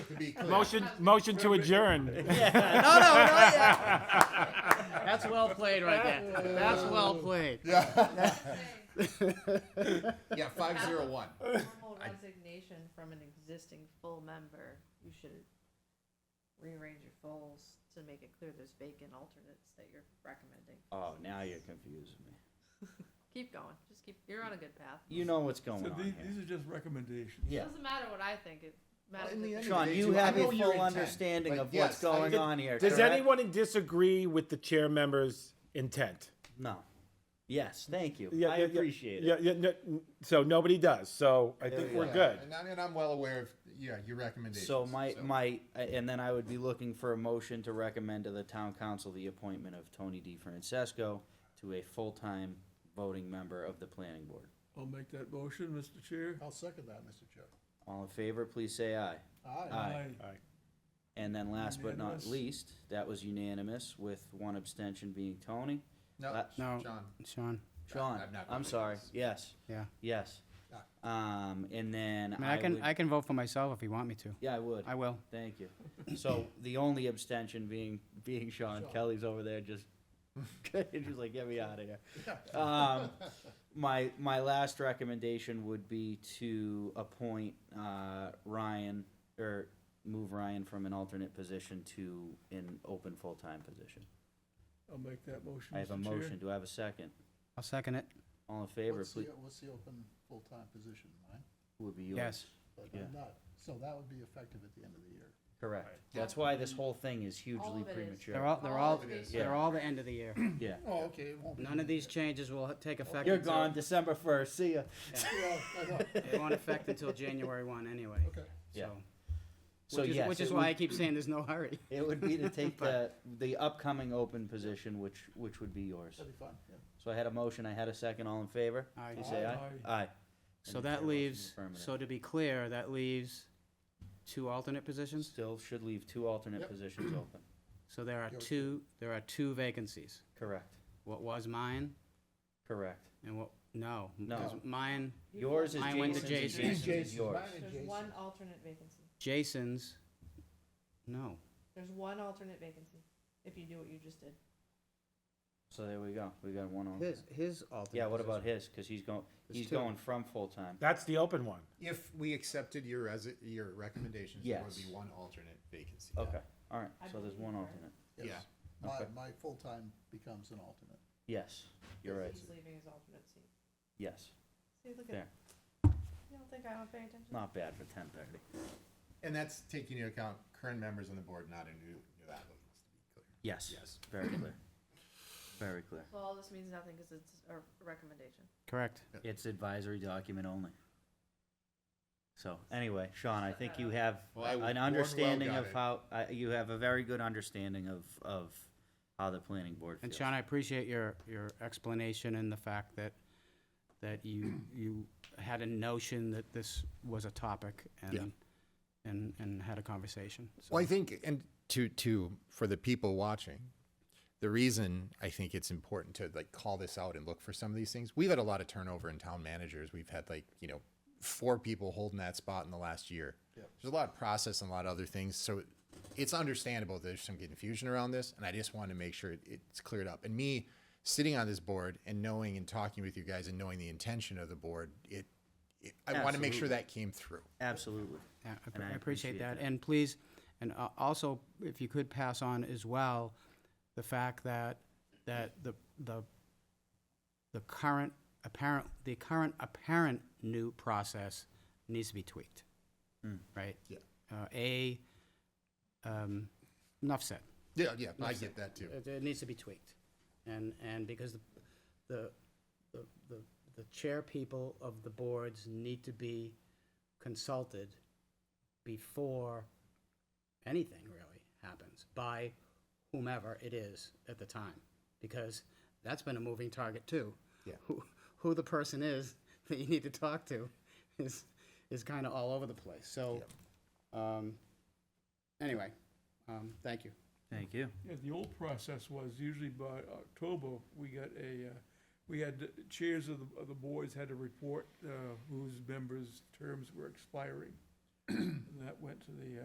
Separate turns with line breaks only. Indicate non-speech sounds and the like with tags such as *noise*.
to be clear.
Motion, motion to adjourn. *laughs*
No, no, no. yeah. That's well played right there. That's well played.
*laughs* Yeah,
*laughs*
All
yeah, five zero one.
formal resignation from an existing full member, you should rearrange your goals to make it clear there's vacant alternates that you're recommending.
Oh, now you're confusing me.
Keep going, just keep, you're on a good path.
You know what's going
So
on
these,
here.
these are just recommendations.
Yeah.
Doesn't matter what I think, it matters.
in the
if
end-
you-
Sean,
They
you
do- I
have a
know your
full
intent,
understanding
but
of
yes,
what's
I-
going on here.
Does
correct?
anyone disagree with the chair member's intent?
No. Yes, thank you.
Yeah,
I
yeah, yeah.
appreciate
Yeah,
it.
yeah, no- n- so nobody does, so I think
Yeah,
we're
Yeah,
good.
And, I- and I'm well aware of yeah your recommendations.
So my, my, and then I would be looking for a motion to recommend to the town council the appointment of Tony D. Francesco to a full-time voting member of the planning board.
I'll make that motion, Mr. Chair.
I'll second that, Mr. Chair.
All in favor, please say aye. Aye. And then last but not
Unanimous.
least, that was unanimous with one abstention being Tony.
No,
Uh,
No.
John.
Sean,
Sean,
I'm not
I'm
voting
sorry,
yes.
yes,
yeah.
yes.
Ah.
Um, and then
I mean, I
I
can,
would-
I can vote for myself if you want me to.
yeah, I would.
I will.
Thank you. So the only abstention being, being Sean, Kelly's over there just, *laughs* just like, get me out of here. Um, my, my last recommendation would be to appoint, uh, Ryan, or move Ryan from an alternate position to an open full-time position.
I'll make that motion,
I have a
Mr. Chair.
motion, do I have a second?
I'll second it.
All in favor, please,
What's the open full-time position, right?
would be yours.
Yes.
But
Yeah.
I'm not, so that would be effective at the end of the year.
Correct. That's why this whole thing is
All
hugely
of it is.
They're
premature.
all, they're
All
all,
of it is.
they're
Yeah.
all the end of the *clears throat* year.
Yeah.
Oh, okay, it won't be.
None of these changes will ha- take effect.
You're
until-
gone December first, see ya.
Yeah, I know.
It won't affect
*laughs*
until January one anyway.
Okay.
Yeah.
So-
So
Which is,
yes.
which is
it
why I
would-
keep saying there's no hurry.
It would be
*laughs*
to take the, the upcoming open position, which, which would be yours.
That'd be fine, yeah.
So I had a motion, I had a second, all in favor?
Aye.
Please say aye.
Aye.
Aye.
So
And the chair votes
that
in
leaves,
affirmative.
so to be clear, that leaves two alternate positions?
Still should leave two alternate
Yep.
positions open.
So there are
Yeah, we
two, there are two vacancies.
Correct,
What was mine
correct.
and what, no.
No.
because Mine,
Yours is
Mine went to
Jason's.
Jason.
and Jason's is
Jason's.
yours.
Mine is-
There's one alternate vacancy,
Jason's, no.
there's one alternate vacancy, if you do what you just did.
So there we go, we got one on.
His, his alternate.
Yeah, what about his? Cause he's going,
There's
he's
two.
going from full-time.
That's the open one.
If we accepted your as your recommendations, there would
Yes.
be one alternate vacancy.
Okay, alright,
I
so there's
believe
one
her.
alternate.
Yeah.
Yes. My,
Okay.
my full-time becomes an alternate.
Yes, you're right,
He's leaving his alternate seat.
yes.
See, look at,
There,
you don't think I don't pay attention?
not bad for ten thirty.
And that's taking into account current members on the board, not a new new applicants. To be clear.
Yes.
Yes.
Very clear. Very clear.
So all this means nothing, cause it's a recommendation.
Correct.
It's advisory document only. So, anyway, Sean, I think you have
Well, I
an
warned well
understanding
got
of
it.
how, I- you have a very good understanding of, of how the planning board
And
feels.
Sean, I appreciate your, your explanation and the fact that, that you, you had a notion that this was a topic and, and, and had a conversation. So-
Well, I think, and to to for the people watching, the reason I think it's important to like call this out and look for some of these things. We've had a lot of turnover in town managers. We've had like you know four people holding that spot in the last year. There's a lot of process and a lot of other things, so it's understandable there's some confusion around this, and I just want to make sure it- it's cleared up. And me sitting on this board and knowing and talking with you guys and knowing the intention of the board, it, it I want to make sure that came through.
Absolutely.
Yeah, I
And
appre-
I
I appreciate
appreciate
that.
that.
And please, and a- also, if you could pass on as well, the fact that, that the, the, the current apparent, the current apparent new process needs to be tweaked,
Mm.
right?
Yeah.
Uh, A, um, enough said.
Yeah, yeah, I get that too.
It, it needs to be tweaked. And, and because the, the, the- the, the chair people of the boards need to be consulted before anything really happens by whomever it is at the time. Because that's been a moving target too.
Yeah.
Who, who the person is *laughs* that you need to talk to is, is kind of all over the place. So, um, anyway, um, thank you.
Thank you.
Yeah, the old process was usually by October, we got a, uh, we had the chairs of the, of the boards had to report, uh, whose members' terms were expiring. *clears throat* And that went to the, uh,